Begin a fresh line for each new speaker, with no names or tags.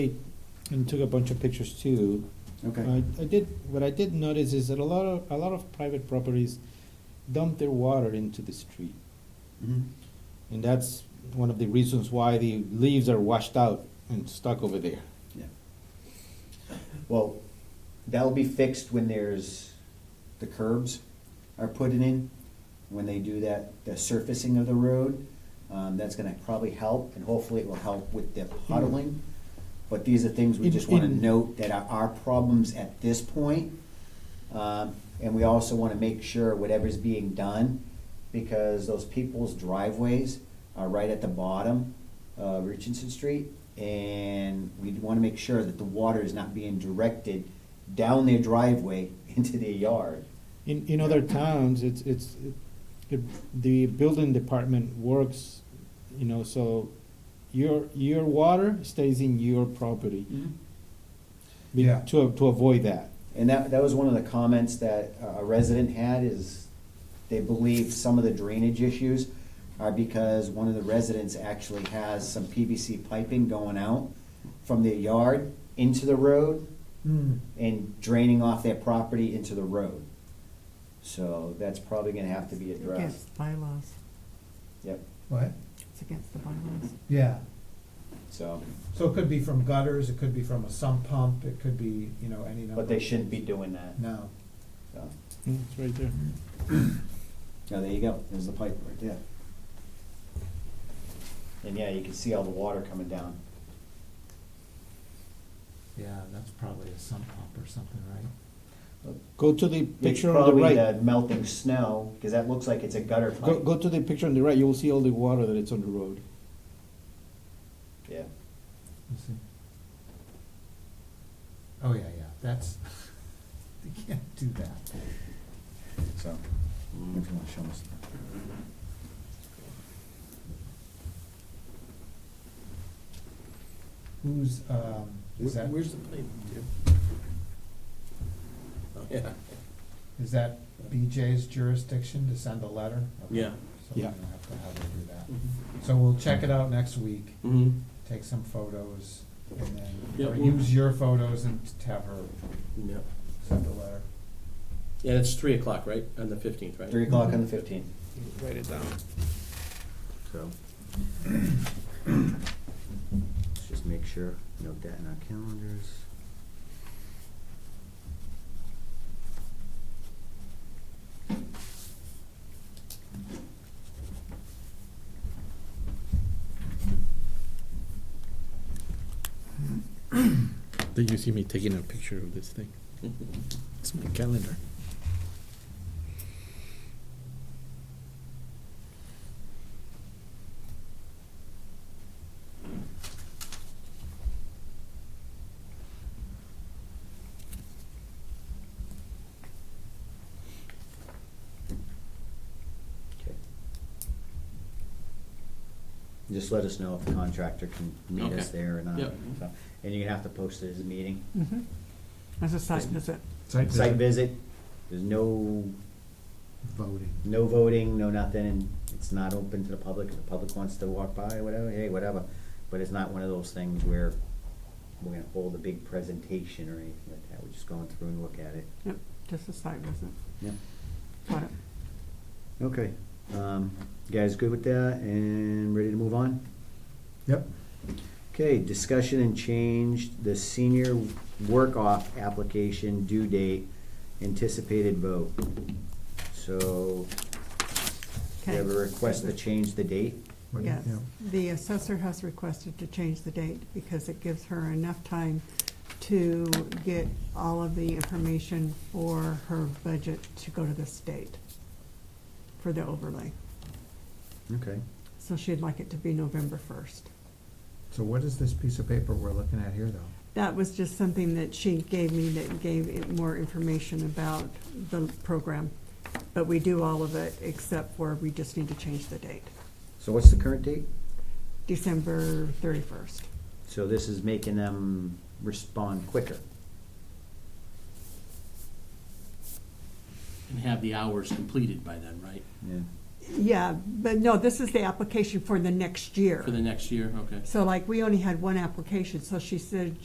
and took a bunch of pictures too.
Okay,
I, I did, what I did notice is that a lot of, a lot of private properties dump their water into the street.
Mhm.
And that's one of the reasons why the leaves are washed out and stuck over there.
yeah. Well, that'll be fixed when there's, the curbs are put in. When they do that, the surfacing of the road, um, that's gonna probably help, and hopefully it will help with the puddling. But these are things we
In-
just wanna
in-
note that are our problems at this point. Um, and we also wanna make sure whatever's being done, because those people's driveways are right at the bottom of Richardson Street. And we wanna make sure that the water is not being directed down their driveway into their yard.
In, in other towns, it's, it's, it- the building department works, you know, so your, your water stays in your property.
Mm.
be-
Yeah.
To, to avoid that.
And that, that was one of the comments that uh, a resident had is they believe some of the drainage issues are because one of the residents actually has some PVC piping going out from their yard into the road
Hmm.
and draining off their property into the road. So that's probably gonna have to be
It's
addressed.
Against bylaws,
Yep,
What?
it's against the bylaws.
Yeah.
so,
So it could be from gutters, it could be from a sump pump, it could be, you know, any number.
but they shouldn't be doing that,
No.
so.
Mm, It's right there.
Now, there you go, there's the pipe right there. And yeah, you can see all the water coming down.
Yeah, that's probably a sump pump or something, right?
Go to the
It's
picture on the
probably
right.
the melting snow, because that looks like it's a gutter
Go,
pipe.
go to the picture on the right, you will see all the water that it's on the road.
Yeah,
You see? Oh, yeah, yeah, that's, you can't do that.
so. if you wanna show us.
Who's, um, is that,
Where's the plane, Jim? Oh, yeah.
is that BJ's jurisdiction to send a letter? Okay.
Yeah.
So we're
Yeah.
gonna have to have her do that. So we'll check it out next week,
Mm-hmm.
take some photos, and then,
Yeah,
or
we'll-
use your photos and t- have her
Yep.
send a letter.
And it's three o'clock, right, on the fifteenth, right?
Three o'clock on the fifteenth.
Write it down. So.
Let's just make sure, note that in our calendars.
Did you see me taking a picture of this thing? It's my calendar.
Okay. Just let us know if the contractor can meet us
Okay.
there or not.
Yep.
so. And you're gonna have to post it as a meeting.
Mhm. As a site visit.
Site visit, there's no,
Voting.
no voting, no nothing, and it's not open to the public. If the public wants to walk by, whatever, hey, whatever. But it's not one of those things where we're gonna hold a big presentation or anything like that. We're just going through and look at it.
Yep, just a site visit.
Yep.
Got it.
Okay, um, you guys good with that and ready to move on?
Yep.
Okay, discussion and change the senior work-off application due date, anticipated vote. So, do you
Okay.
have a request to change the date?
What do you-
Yes,
yeah.
the assessor has requested to change the date because it gives her enough time to get all of the information for her budget to go to the state for the overlay.
Okay.
So she'd like it to be November first.
So what is this piece of paper we're looking at here, though?
That was just something that she gave me that gave it more information about the program. But we do all of it except for we just need to change the date,
So what's the current date?
December thirty-first.
So this is making them respond quicker.
And have the hours completed by then, right?
Yeah.
Yeah, but no, this is the application for the next year.
for the next year, okay.
So like, we only had one application, so she said